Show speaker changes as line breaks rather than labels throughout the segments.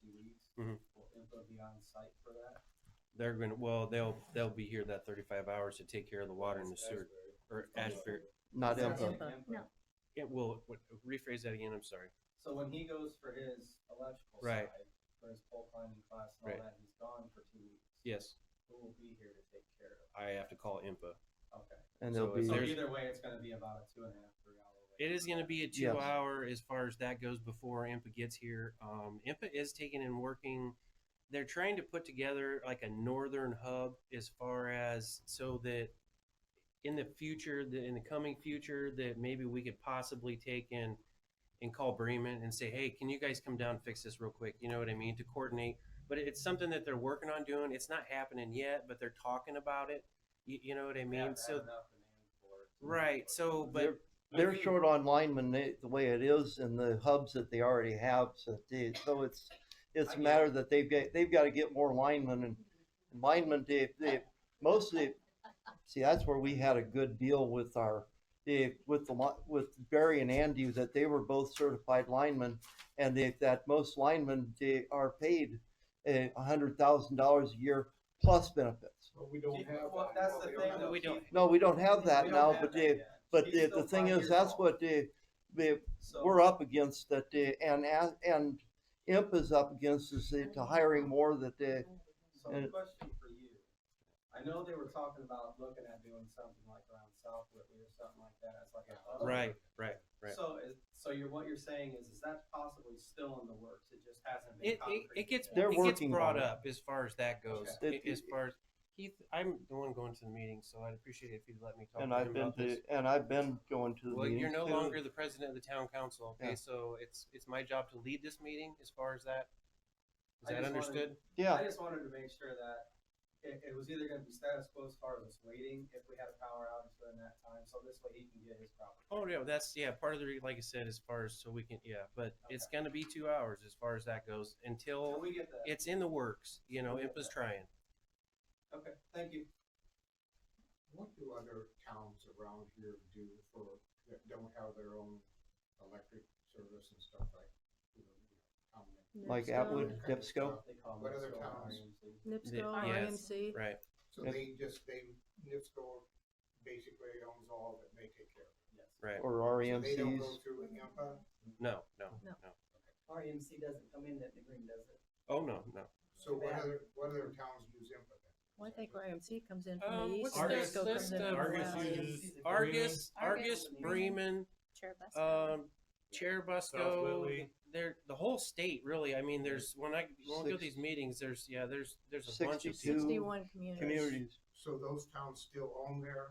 two weeks.
Mhm.
Will IMPA be on site for that?
They're gonna, well, they'll, they'll be here that thirty-five hours to take care of the water and the
That's
sewer,
Asbury.
or
Oh,
Ashbury.
Not
Is that
info.
in
IMPA, no.
Yeah, well, what- rephrase that again, I'm sorry.
So when he goes for his electrical
Right.
side, for his pole climbing class and
Right.
all that, he's gone for two weeks.
Yes,
Who will be here to take care of?
I have to call IMPA.
it? Okay.
And
So
they'll be
is
So
There's-
either way, it's gonna be about a two and a half, three hour wait.
It is gonna be a
Yes.
two-hour as far as that goes before IMPA gets here. Um, IMPA is taking and working. They're trying to put together like a northern hub as far as so that in the future, the, in the coming future, that maybe we could possibly take in and call Bremen and say, hey, can you guys come down and fix this real quick? You know what I mean? To coordinate. But it's something that they're working on doing. It's not happening yet, but they're talking about it. You, you know what I
They have
mean?
to
So,
have enough demand for it to move
right.
forward.
So, but.
They're- they're short on linemen they, the way it is and the hubs that they already have. So they, so it's
I
it's a
get
matter that they've got they've got to get more linemen and linemen. They they mostly see that's where we had a good deal with our they, with the li- with Barry and Andy that they were both certified linemen and they, that most linemen they are paid a hundred thousand dollars a year plus benefits.
But we
Do
don't
you-
have.
Well,
that.
that's the
We
thing
have
though.
We
Keith,
don't-
No, we don't have that
we don't
now,
have
but
that
they,
yet.
but
He's
the,
still
the thing
five
is
years
that's
old.
what they, they
So-
we're up against that uh, and as- and imp is up against us uh, to hiring more that uh,
So
And
a
it-
question for you. I know they were talking about looking at doing something like around South Whitley or something like that as like a hub.
Right, right, right.
So is, so you're, what you're saying is, is that possibly still in the works? It just hasn't been
It, it,
concrete.
it gets,
yet?
They're
it gets
working
brought
on it.
up as far as that goes,
Okay.
A- as far as, Keith, I'm the one going to the meeting, so I'd appreciate it if you'd let me talk
and
to
I've
him
been
about
to
this.
and I've been going to the
Well, you're
meetings
no
too.
longer the president of the town council, okay,
Yeah.
so it's, it's my job to lead this meeting as far as that. Is
I
that
just wanted-
understood?
yeah
I just wanted to make sure that it, it was either gonna be status quo as far as us waiting, if we had a power outage during that time, so this way he can get his property.
Oh, yeah, that's, yeah, part of the, re- like I said, as far as, so we can, yeah, but it's
Okay.
gonna be two hours as far as that goes
Can
until
we get that?
it's in the works, you know,
We'll get
IMPA's
that.
trying.
Okay, thank you.
What do other towns around here do for, that don't have their own electric service and stuff like? you know, how many-
like
Nipso,
Atwood,
Okay.
Dipsco.
They call
What
it
other
Solar
towns?
RMC.
Nipso,
Yes.
IMC.
Right,
So
Yes.
they just, they, NIPSCO basically owns all of it, they take care of it.
Yes.
right.
or E
So they don't
REMCs.
go through IMPA,
No, no, no.
No.
RMC doesn't come in that degree, does it?
Oh, no, no.
so what other, what other towns use IMPA then?
Well, I think IMC comes in from
Um,
the
what's
east,
their
Cisco comes in
system?
from the
Argus
west.
uses
Argus, Argus,
Argus,
Bremen, um, Cherubusco,
Whitley.
there, the whole state really, I mean, there's, when I, when we go to these
Six-
meetings, there's, yeah, there's, there's a bunch of
62.
people.
Sixty-one communities.
Communities.
So those towns still own their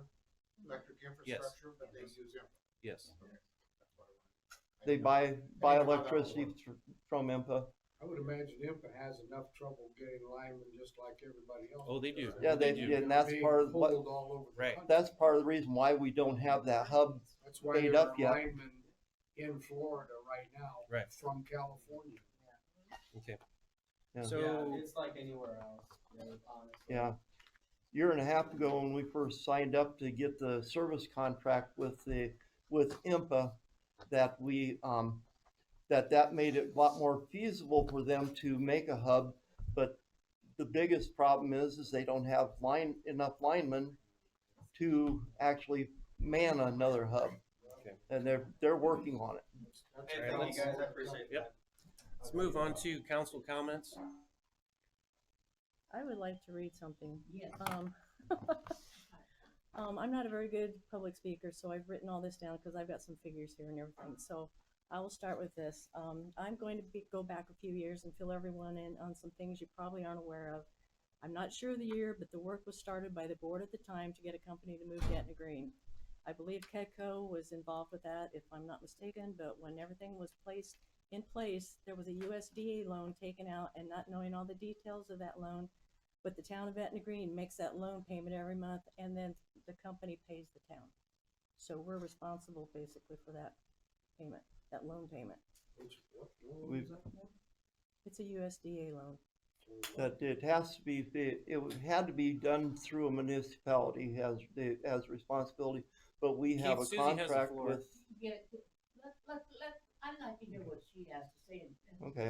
electric infrastructure, but they
Yes.
use IMPA?
Yes,
Okay. That's what I wanted. I
They
didn't-
buy buy
how that
electricity
works.
thr- from IMPA.
I would imagine IMPA has enough trouble getting linemen just like everybody else.
Oh, they do.
does.
Yeah, they,
do.
yeah, and that's
Being
part of what
pulled all over the
Right.
country.
that's part of the reason why we don't have that hub.
That's why
made
there
up
are
yet.
linemen in Florida right now.
Right.
From California.
okay.
Yeah.
So,
Yeah, it's like anywhere else, really, honestly.
Yeah. Year and a half ago, when we first signed up to get the service contract with the, with IMPA, that we, um, that that made it a lot more feasible for them to make a hub. But the biggest problem is, is they don't have line, enough linemen to actually man another hub.
Okay.
And they're, they're working on it.
That's-
Hey,
Alright,
thank
let's-
you guys, I appreciate
Yep.
that.
let's move on to council comments.
I would like to read something. Um, um, I'm not a very good public speaker, so I've written all this down because I've got some figures here and everything. So I will start with this. Um, I'm going to be, go back a few years and fill everyone in on some things you probably aren't aware of. I'm not sure of the year, but the work was started by the board at the time to get a company to move Etna Green. I believe Kedco was involved with that, if I'm not mistaken, but when everything was placed in place, there was a USDA loan taken out and not knowing all the details of that loan. But the town of Etna Green makes that loan payment every month and then the company pays the town. So we're responsible basically for that payment, that loan payment.
Which- what- what was
We've-
that for?
It's a USDA loan.
That it has to be, it, it had to be done through a municipality has, has responsibility. But we have a
Keith, Susie has the
contract
floor.
with,
Yeah, let, let, let, I'd like to hear what she has to say and- and
okay,